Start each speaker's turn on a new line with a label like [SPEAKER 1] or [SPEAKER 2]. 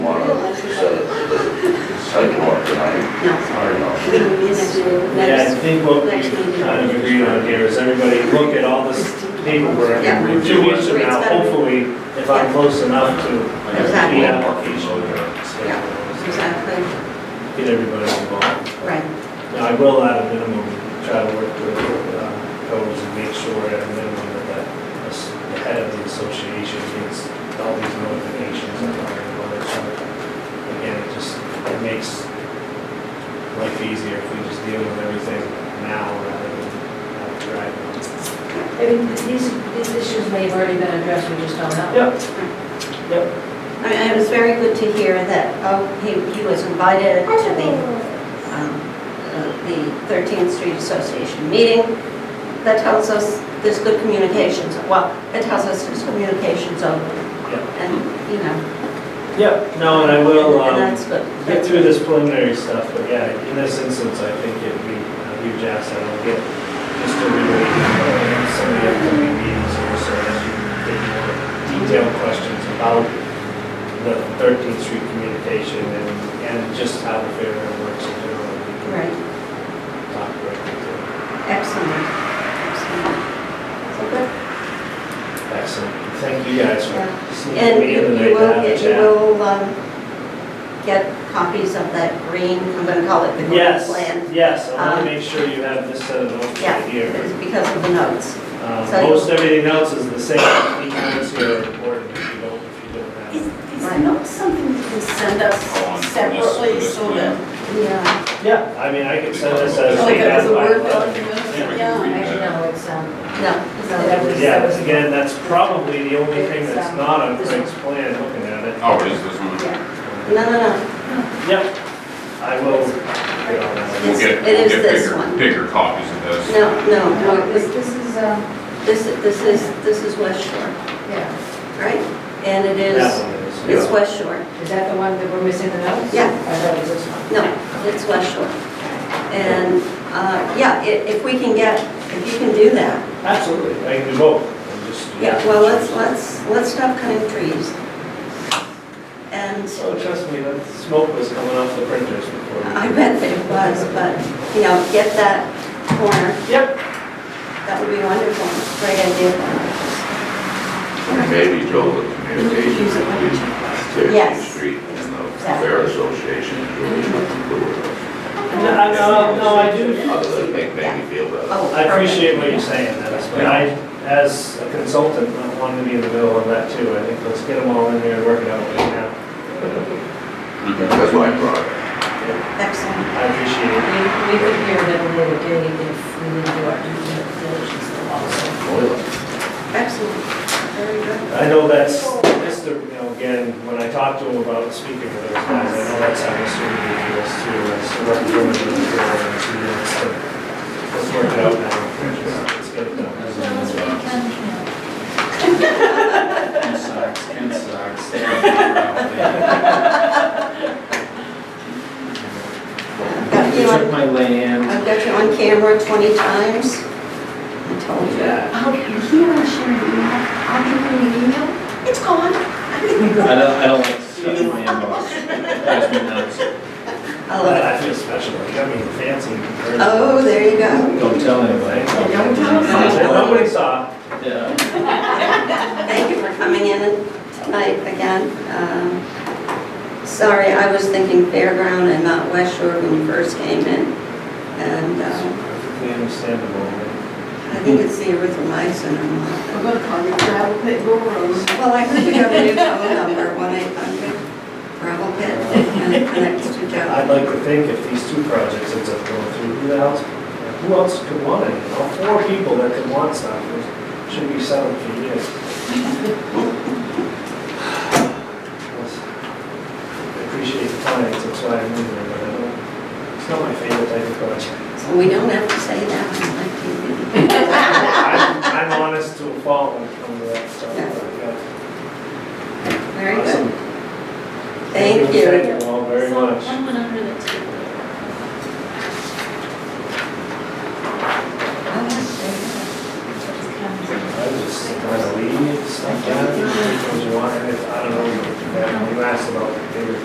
[SPEAKER 1] to
[SPEAKER 2] Yeah, I
[SPEAKER 1] next.
[SPEAKER 2] think what we
[SPEAKER 1] next meeting.
[SPEAKER 2] kind of agreed on here is everybody look at all this paperwork.
[SPEAKER 1] Yeah.
[SPEAKER 2] and Two weeks from now, hopefully, if I'm close enough to
[SPEAKER 1] Exactly.
[SPEAKER 2] the application.
[SPEAKER 1] Yeah. Exactly,
[SPEAKER 2] Get everybody involved.
[SPEAKER 1] right,
[SPEAKER 2] Now, I will at a minimum try to work with uh, codes and make sure at a minimum that that as- the head of the association gets all these notifications and all that other stuff. Again, it just, it makes life easier if we just deal with everything now rather than have to drag it on.
[SPEAKER 3] I mean, these, these issues may have already been addressed, we just don't know.
[SPEAKER 2] Yep, yep.
[SPEAKER 1] I mean, it was very good to hear that, oh, he, he was invited to the, um, uh, the 13th Street Association meeting. That tells us there's good communications, well, it tells us there's communications open,
[SPEAKER 2] Yep,
[SPEAKER 1] and, you know.
[SPEAKER 2] yep, no, and I will,
[SPEAKER 1] And
[SPEAKER 2] um,
[SPEAKER 1] that's good.
[SPEAKER 2] get through this preliminary stuff, but yeah, in this instance, I think it'd be a huge asset, I'll get Mr. Ridley, and some of the upcoming meetings here, so as you get more detailed questions about the Thirteenth Street communication and, and just how the fair works in general, we can
[SPEAKER 1] Right.
[SPEAKER 2] talk directly to it.
[SPEAKER 1] Excellent, excellent. So good.
[SPEAKER 2] Excellent, thank you guys for sneaking
[SPEAKER 1] And
[SPEAKER 2] me in
[SPEAKER 1] you
[SPEAKER 2] tonight
[SPEAKER 1] you
[SPEAKER 2] to have a
[SPEAKER 1] will, you
[SPEAKER 2] chat.
[SPEAKER 1] will um, get copies of that green, I'm gonna call it the green
[SPEAKER 2] Yes,
[SPEAKER 1] plan.
[SPEAKER 2] yes, I want
[SPEAKER 1] Um,
[SPEAKER 2] to make sure you have this set of notes
[SPEAKER 1] Yeah,
[SPEAKER 2] right here.
[SPEAKER 1] it's because of the notes.
[SPEAKER 2] Um,
[SPEAKER 1] So-
[SPEAKER 2] Most everything else is the same, the comments here are important if you don't, if you don't have.
[SPEAKER 4] Is,
[SPEAKER 2] it.
[SPEAKER 4] is the note something you can send us
[SPEAKER 5] Oh, on this-
[SPEAKER 4] separately
[SPEAKER 5] this
[SPEAKER 4] so
[SPEAKER 5] plan.
[SPEAKER 4] that,
[SPEAKER 1] Yeah.
[SPEAKER 2] Yeah, I mean, I could send this as.
[SPEAKER 4] like,
[SPEAKER 2] a
[SPEAKER 4] as Oh, a
[SPEAKER 2] guideline.
[SPEAKER 4] Word document?
[SPEAKER 5] Yeah.
[SPEAKER 4] Yeah.
[SPEAKER 3] Actually, no, it's, um,
[SPEAKER 1] No,
[SPEAKER 3] Yeah.
[SPEAKER 1] no,
[SPEAKER 2] Yeah, but again, that's probably the only thing that's not on Craig's plan, looking at it.
[SPEAKER 5] Oh, it is this one?
[SPEAKER 1] no, no, no.
[SPEAKER 2] Yep, I will. get on that.
[SPEAKER 5] We'll get,
[SPEAKER 1] It
[SPEAKER 5] we'll
[SPEAKER 1] is
[SPEAKER 5] get
[SPEAKER 1] this
[SPEAKER 5] bigger,
[SPEAKER 1] one.
[SPEAKER 5] bigger copies of this.
[SPEAKER 1] no, no,
[SPEAKER 3] Oh, no,
[SPEAKER 1] no,
[SPEAKER 3] this,
[SPEAKER 1] this,
[SPEAKER 3] this is, um,
[SPEAKER 1] this is- this is, this is West Shore,
[SPEAKER 3] yeah,
[SPEAKER 1] right? And it
[SPEAKER 2] That
[SPEAKER 1] is,
[SPEAKER 2] one is.
[SPEAKER 1] it's West Shore,
[SPEAKER 3] is that the one that we're missing the notes?
[SPEAKER 1] Yeah.
[SPEAKER 3] I thought it was this one.
[SPEAKER 1] no, it's West Shore. And, uh, yeah, i- if we can get, if you can do that,
[SPEAKER 2] Absolutely, I can do both. I'm just-
[SPEAKER 1] Yeah, well, let's, let's, let's stop cutting trees. And
[SPEAKER 2] Oh, trust me, that smoke was coming off the printers before. we-
[SPEAKER 1] I bet that it was, but, you know, get that corner,
[SPEAKER 2] Yep,
[SPEAKER 1] that would be wonderful, great idea.
[SPEAKER 6] And maybe Joel, the communication between State
[SPEAKER 1] Yes.
[SPEAKER 6] Street and the Fair Association, Julie, nothing to do with it.
[SPEAKER 2] no, I- no, no, I do.
[SPEAKER 6] Other than make Maggie feel better.
[SPEAKER 1] Oh,
[SPEAKER 2] I appreciate what
[SPEAKER 1] perfect.
[SPEAKER 2] you're saying, that's, but I, as a consultant, I wanted to be in the middle of that too. I think let's get them all in there and work it out right now.
[SPEAKER 5] Mhm.
[SPEAKER 6] That's why I brought it.
[SPEAKER 1] Excellent,
[SPEAKER 2] I appreciate it.
[SPEAKER 3] We, we could hear that we were day if we didn't do our due diligence also.
[SPEAKER 1] excellent, very good.
[SPEAKER 2] I know that's, Mr., you know, again, when I talked to him about speaking to those guys, I know that's how Mr. Reed feels too, as a representative of the board, and so let's, let's work it out now. Let's get it done.
[SPEAKER 7] Ken sucks, Ken sucks. Stay out there.
[SPEAKER 1] I've got
[SPEAKER 7] They
[SPEAKER 1] you
[SPEAKER 7] took
[SPEAKER 1] on,
[SPEAKER 7] my land.
[SPEAKER 1] I've got you on camera 20 times. I told you.
[SPEAKER 7] I don't, I don't like to touch my inbox. Drives me nuts.
[SPEAKER 1] I
[SPEAKER 2] But
[SPEAKER 1] love it.
[SPEAKER 2] I feel special, like, I mean, fancy. compared to-
[SPEAKER 1] Oh, there you go.
[SPEAKER 7] Don't tell anybody.
[SPEAKER 1] Don't
[SPEAKER 2] Nobody saw.
[SPEAKER 7] Yeah.
[SPEAKER 1] Thank you for coming in tonight again. Um, Sorry, I was thinking fairground and not West Shore when you first came in. And uh,
[SPEAKER 2] Perfectly understandable.
[SPEAKER 1] I think it's the erythromycin or
[SPEAKER 4] We're
[SPEAKER 1] not.
[SPEAKER 4] gonna call you gravel pit Rose.
[SPEAKER 1] Well, I heard you have a new phone number, 1-800 Gravel Pit, and it connects to
[SPEAKER 2] I'd
[SPEAKER 1] Joe.
[SPEAKER 2] like to think if these two projects ends up going through, who else, who else could want it? You know, four people that could want something should be selling for years. I appreciate the clients, that's why I'm moving, but I don't, it's not my favorite type of project.
[SPEAKER 1] So we don't have to say that on my TV.
[SPEAKER 2] I'm I'm honest to a fault when it comes to that stuff. but, yeah.
[SPEAKER 1] Very
[SPEAKER 2] Awesome.
[SPEAKER 1] good. Thank you.
[SPEAKER 2] Thank you all very much. I just kind of leave, stuff down, because you want, I don't know, you asked about bigger